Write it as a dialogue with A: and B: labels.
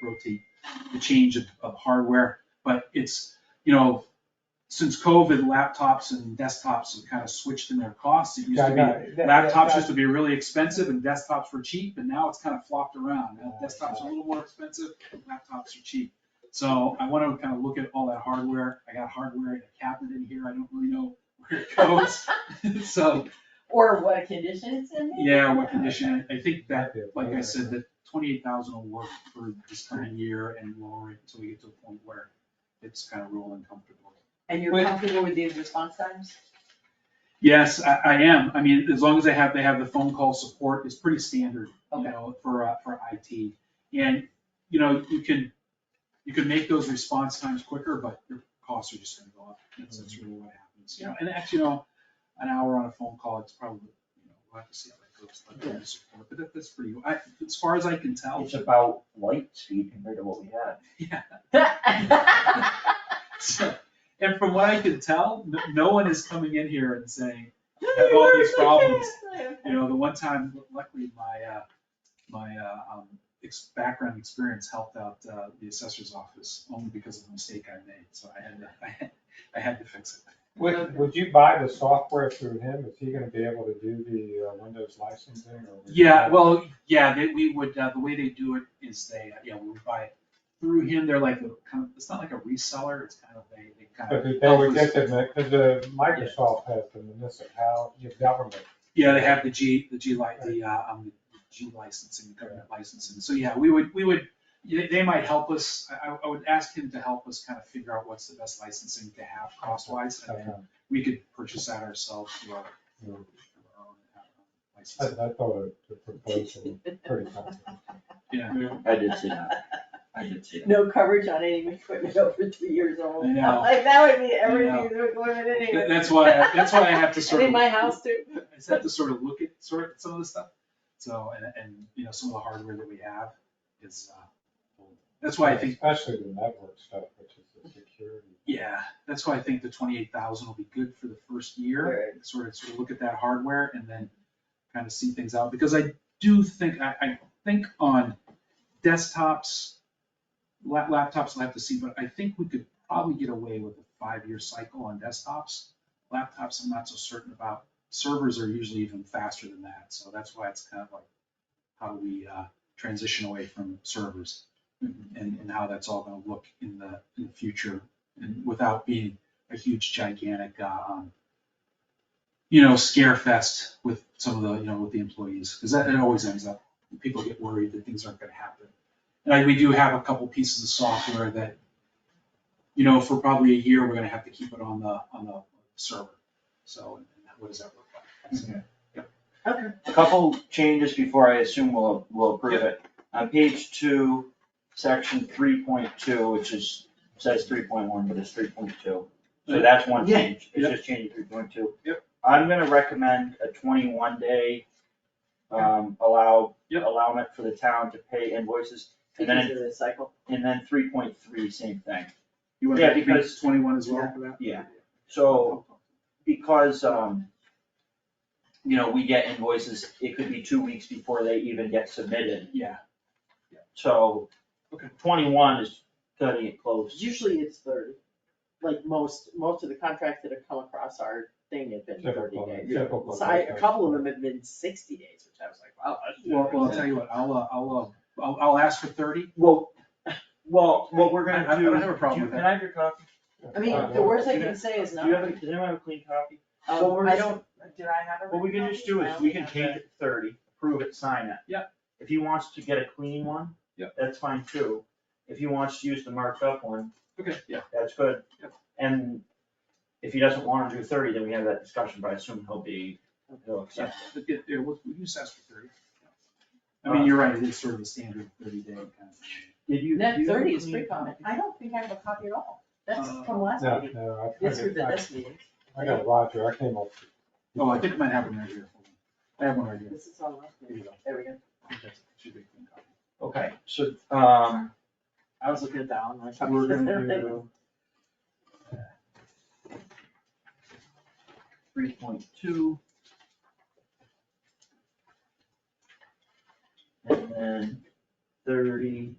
A: rotate the change of, of hardware, but it's, you know, since COVID, laptops and desktops have kind of switched in their costs. It used
B: Yeah, I
A: to
B: got
A: be,
B: it. That- that-
A: laptops
B: that-
A: used to be really expensive and desktops were cheap, and now it's kind of flopped around. Now
B: Yeah,
A: Desktops are a
B: yeah.
A: little more expensive, laptops are cheap. So I want to kind of look at all that hardware. I got hardware in a cabinet in here. I don't really know where it goes. So,
C: Or what condition it's in. maybe?
A: yeah, what condition, I think that
B: Yeah,
A: like I
B: okay.
A: said, the twenty-eight thousand will work for this coming year and lower it until we get to a point where it's kind of rolling comfortable.
C: And you're
B: Wait.
C: comfortable with these response times?
A: Yes, I, I am. I mean, as long as they have, they have the phone call support, it's pretty standard, you
C: Okay.
A: know, for, uh, for IT. And, you know, you can, you can make those response times quicker, but your costs are just gonna go up. That's, that's really what happens, you know, Mm-hmm. and actually, you know, an hour on a phone call, it's probably, you know, we'll have to see how that goes, like, the support, but that, that's pretty, I, as far as I can tell.
D: It's about light speed compared to what we had.
A: Yeah.
C: That's
A: So, And from what I can tell, no, no one is coming in here and saying, I have all these problems. you know, the one time, luckily, my, uh, my, uh, um, ex- background experience helped out, uh, the assessor's office only because of the mistake I made, so I had to, I had, I had to fix it.
B: Would, would you buy the software through him? Is he gonna be able to do the uh, Windows licensing or? would you-
A: Yeah, well, yeah, they, we would, uh, the way they do it is they, uh, yeah, we would buy it through him, they're like, the kind of, it's not like a reseller, it's kind of, they, they kind of.
B: But if they would get the, because the Microsoft has the municipality, the government.
A: Yeah, they have the G, the G li, the, uh, um, the G licensing, the government licensing, so yeah, we would, we would, they, they might help us, I, I- I would ask him to help us kind of figure out what's the best licensing to have cost-wise, and then
B: um,
A: we could purchase that ourselves through our.
B: you know,
A: through our own, uh,
B: I,
A: licensing.
B: I thought the proposal was pretty comprehensive.
A: Yeah,
D: I did see that. I did see that.
C: No coverage on any equipment over three years old.
A: I know.
C: Like, that would be
A: I know.
C: everything that's going in anyway.
A: That- that's why, I- that's why I have to
C: And
A: sort of.
C: in my house too.
A: I just have to sort of look at sort of some of the stuff. So, and, and, you know, some of the hardware that we have is, uh, old. that's why I think
B: Especially the network stuff, which is the security.
A: Yeah, that's why I think the twenty-eight thousand will be good for the first year, sort of, sort of look at that hardware and then kind of see things out, because I do think, I, I think on desktops, la- laptops, we'll have to see, but I think we could probably get away with a five-year cycle on desktops. Laptops, I'm not so certain about, servers are usually even faster than that, so that's why it's kind of like, how do we, uh, transition away from servers? And, and how that's all gonna look in the, in the future and without being a huge gigantic, uh, um, you know, scare fest with some of the, you know, with the employees, because that, it always ends up, people get worried that things aren't gonna happen. And I- we do have a couple pieces of software that, you know, for probably a year, we're gonna have to keep it on the, on the server. So what does that look like? So,
C: Okay.
D: A Couple changes before I assume we'll, we'll approve it. On page two, section three point two, which is, says three point one, but it's three point two. So that's one
A: Yeah.
D: change, it's
A: Yep.
D: just changing three point two.
A: Yep.
D: I'm gonna recommend a twenty-one day, um, allow,
A: Yep.
D: allowment for the town to pay invoices. And then,
C: Into the cycle.
D: and then three point three, same thing.
A: You want
D: Yeah,
A: to make
D: because-
A: twenty-one as well for that?
D: Yeah. So because, um, you know, we get invoices, it could be two weeks before they even get submitted,
A: Yeah,
D: so.
A: Okay.
D: Twenty-one is cutting it close.
C: Usually it's thirty. Like most, most of the contracts that have come across our thing have been thirty
B: Typical,
C: days.
B: typical.
C: So I- a couple of them have been sixty days, which I was like, wow. that's-
A: well, well, I'll tell you what, I'll, uh, I'll, uh, I'll, I'll ask for thirty.
D: Well, well, what we're
A: I-
D: gonna do.
A: I don't have a problem
D: do
A: with
D: you-
A: that.
D: Can I have your copy?
C: I mean, the worst I can say is
D: Uh, Do
C: no.
D: you have, a- does anyone have a clean copy?
C: Um,
D: Well, we're
C: I
D: just-
C: don't, did I have a?
D: What we can just do is, we can change it to thirty, approve it, sign it.
A: Yeah.
D: If he wants to get a clean one.
A: Yeah.
D: That's fine too. If he wants to use the marked up one,
A: Okay, yeah.
D: that's good.
A: Yep.
D: And if he doesn't wanna do thirty, then we have that discussion, but I assume he'll be, he'll
A: Yeah,
D: accept.
A: but it- it was- we just asked for thirty. I mean, you're right, it is sort of a standard thirty day kind of thing.
D: Did you?
C: Net
D: do you have a
C: thirty is
D: clean
C: pretty common. I don't think I have a copy at all. That's
A: Uh,
C: from last
B: No,
C: meeting.
B: no, I- I
C: This was
B: got-
C: the
B: I,
C: this meeting.
B: I got Roger, I came up.
A: Oh, I think it might have one right here. Hold on. I have one right here.
C: This is on last
A: There
C: meeting.
A: you go.
C: There we go.
A: I think that's- should be a clean copy.
D: Okay, so, um,
C: I was looking at that one. like-
B: We're gonna do,
D: three point two. And then thirty.